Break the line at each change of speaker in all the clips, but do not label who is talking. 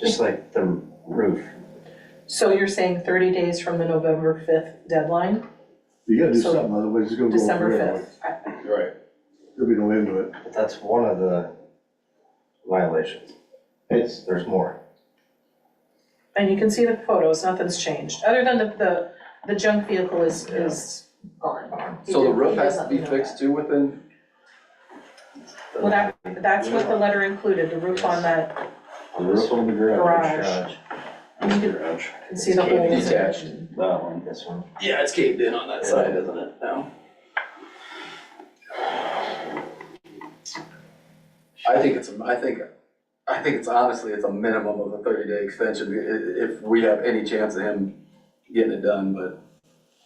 just like the roof.
So you're saying thirty days from the November fifth deadline,
You gotta do
So,
something, otherwise it's gonna go.
December
forever.
fifth?
Right.
There'll be no end to it.
But that's one of the violations. It's, there's more.
And you can see the photos, nothing's changed, other than the, the, the junk vehicle is, is gone. He
So the
did-
roof
he does
has to
let
be
me know
fixed
that.
too within,
Well, that, that's what the letter included, the roof on that,
The roof on the
Garage.
garage.
you can-
Garage.
can see the
Can't be
holes.
detached.
That one.
This one.
Yeah, it's caved in on that
side,
isn't it, now?
I think it's, a- I think, I think it's honestly, it's a minimum of a thirty day extension, i- i- if we have any chance of him getting it done, but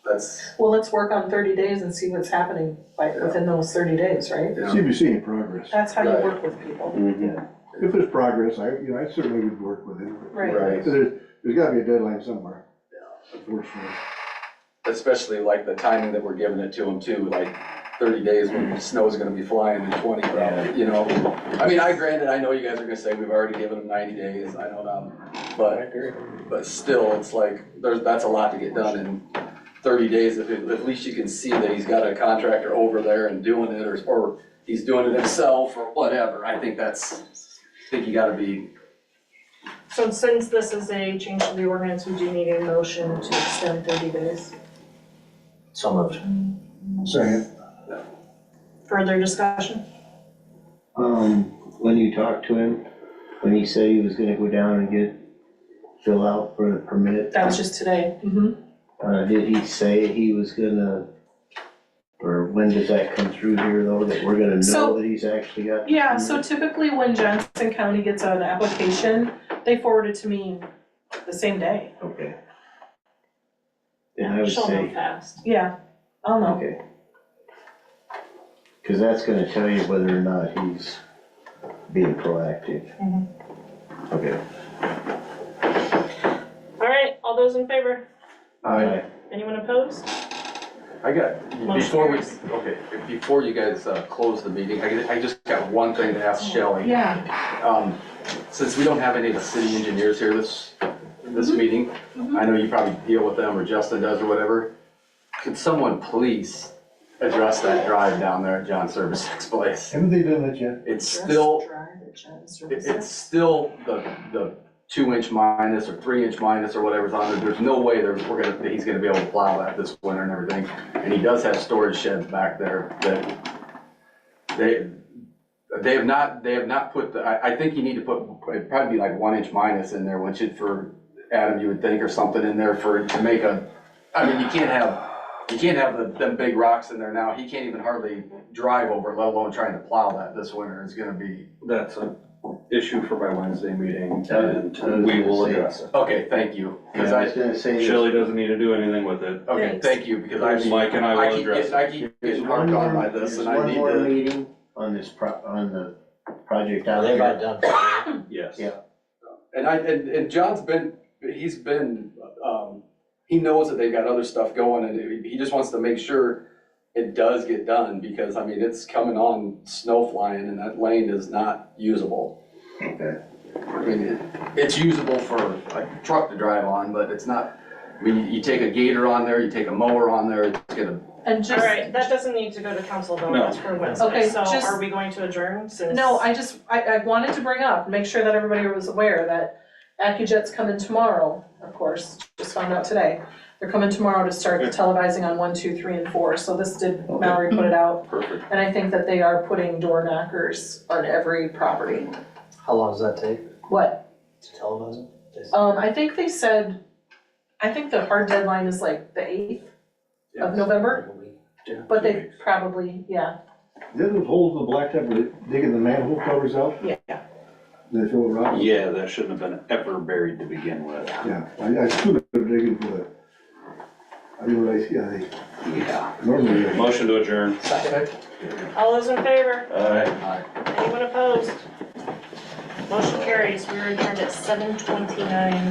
that's,
Well, let's work on thirty days and see what's happening by,
Yeah.
within those thirty days, right?
you
See
know,
if you see any progress.
That's how you
Right.
work with people,
Mm-hmm.
If there's progress, I, you know, I certainly would work with it.
Right.
Right.
So there's, there's gotta be a deadline somewhere, unfortunately.
especially like the timing that we're giving it to him too, like thirty days when snow's gonna be flying in twenty probably, you know? I mean, I granted, I know you guys are gonna say we've already given him ninety days, I know that, but But still, it's like, there's, that's a lot to get done in thirty days, if, it- at least you can see that he's got a contractor over there and doing it, or, or he's doing it himself, or whatever, I think that's, I think you gotta be,
So since this is a change to the ordinance, we do need a motion to extend thirty days.
So moved.
Second.
Further discussion?
Um, when you talked to him, when he said he was gonna go down and get, fill out for the permit,
that was just today,
Mm-hmm.
hmm
uh, did he say he was gonna, or when does that come through here though, that we're gonna
So-
know that he's actually got? the
Yeah,
permit?
so typically when Johnson County gets an application, they forward it to me the same day,
Okay. And I would
She'll move
say,
fast.
yeah, I'll know.
okay. Cause that's gonna tell you whether or not he's being proactive.
Mhm.
Okay.
All right, all those in favor?
I,
Anyone opposed?
I got, before we, okay, before you guys, uh, close the meeting, I, I just got one thing to ask Shelley.
Yeah,
Um, since we don't have any of the city engineers here this, this meeting, I know you probably deal with them, or Justin does, or whatever. Could someone please address that drive down there at John Service's place?
Haven't they done that yet?
It's still, it- it's
It's
still the, the two-inch minus or three-inch minus or whatever's on there. There's no way there's, we're gonna, that he's gonna be able to plow that this winter and everything. And he does have storage sheds back there that they, they have not, they have not put, the- I, I think you need to put, it'd probably be like one-inch minus in there, which it for, Adam, you would think, or something in there for, to make a, I mean, you can't have, you can't have the, them big rocks in there now. He can't even hardly drive over, it, let alone trying to plow that this winter. It's gonna be
That's an issue for my Wednesday meeting
Uh,
and we will address it.
Okay, thank you, because
Yeah, I was
I,
gonna say.
Shelley doesn't need to do anything with it.
okay,
Thanks.
thank you, because I,
Mike and I
I
will
keep
address
getting,
it.
I keep
There's
getting
one
harped on
more,
by this,
there's
and I
one
need
more
to,
meeting on this pro, on the project
Are
out
they about
here.
done?
Yes.
Yeah.
and I, and, and John's been, he's been, um, he knows that they've got other stuff going, and he- he just wants to make sure it does get done, because, I mean, it's coming on snow flying, and that lane is not usable.
Okay.
I mean, it, it's usable for a truck to drive on, but it's not, I mean, you- you take a gator on there, you take a mower on there, it's gonna
And
All
just,
right, that doesn't need to go to council though, that's for
Okay,
Wednesday, so
just-
are we going to adjourn since?
No, I just, I, I wanted to bring up, make sure that everybody was aware that Accujet's coming tomorrow, of course, just found out today. They're coming tomorrow to start televising on one, two, three, and four, so this did, Mallory put it out.
Perfect.
And I think that they are putting door knockers on every property.
How long does that take
What,
to televise it?
um, I think they said, I think the hard deadline is like the eighth of November,
Like a week?
but they probably, yeah,
Did those holes in the blacktop, were they digging the manhole covers out?
yeah, yeah.
Did they fill it rock?
Yeah, that shouldn't have been ever buried to begin with.
Yeah, I, I stood there digging for the, I didn't realize, yeah, they,
Yeah.
normally, they-
Motion to adjourn.
All those in favor?
Aye.
Uh,
Anyone opposed? Motion carries, we are adjourned at seven twenty-nine.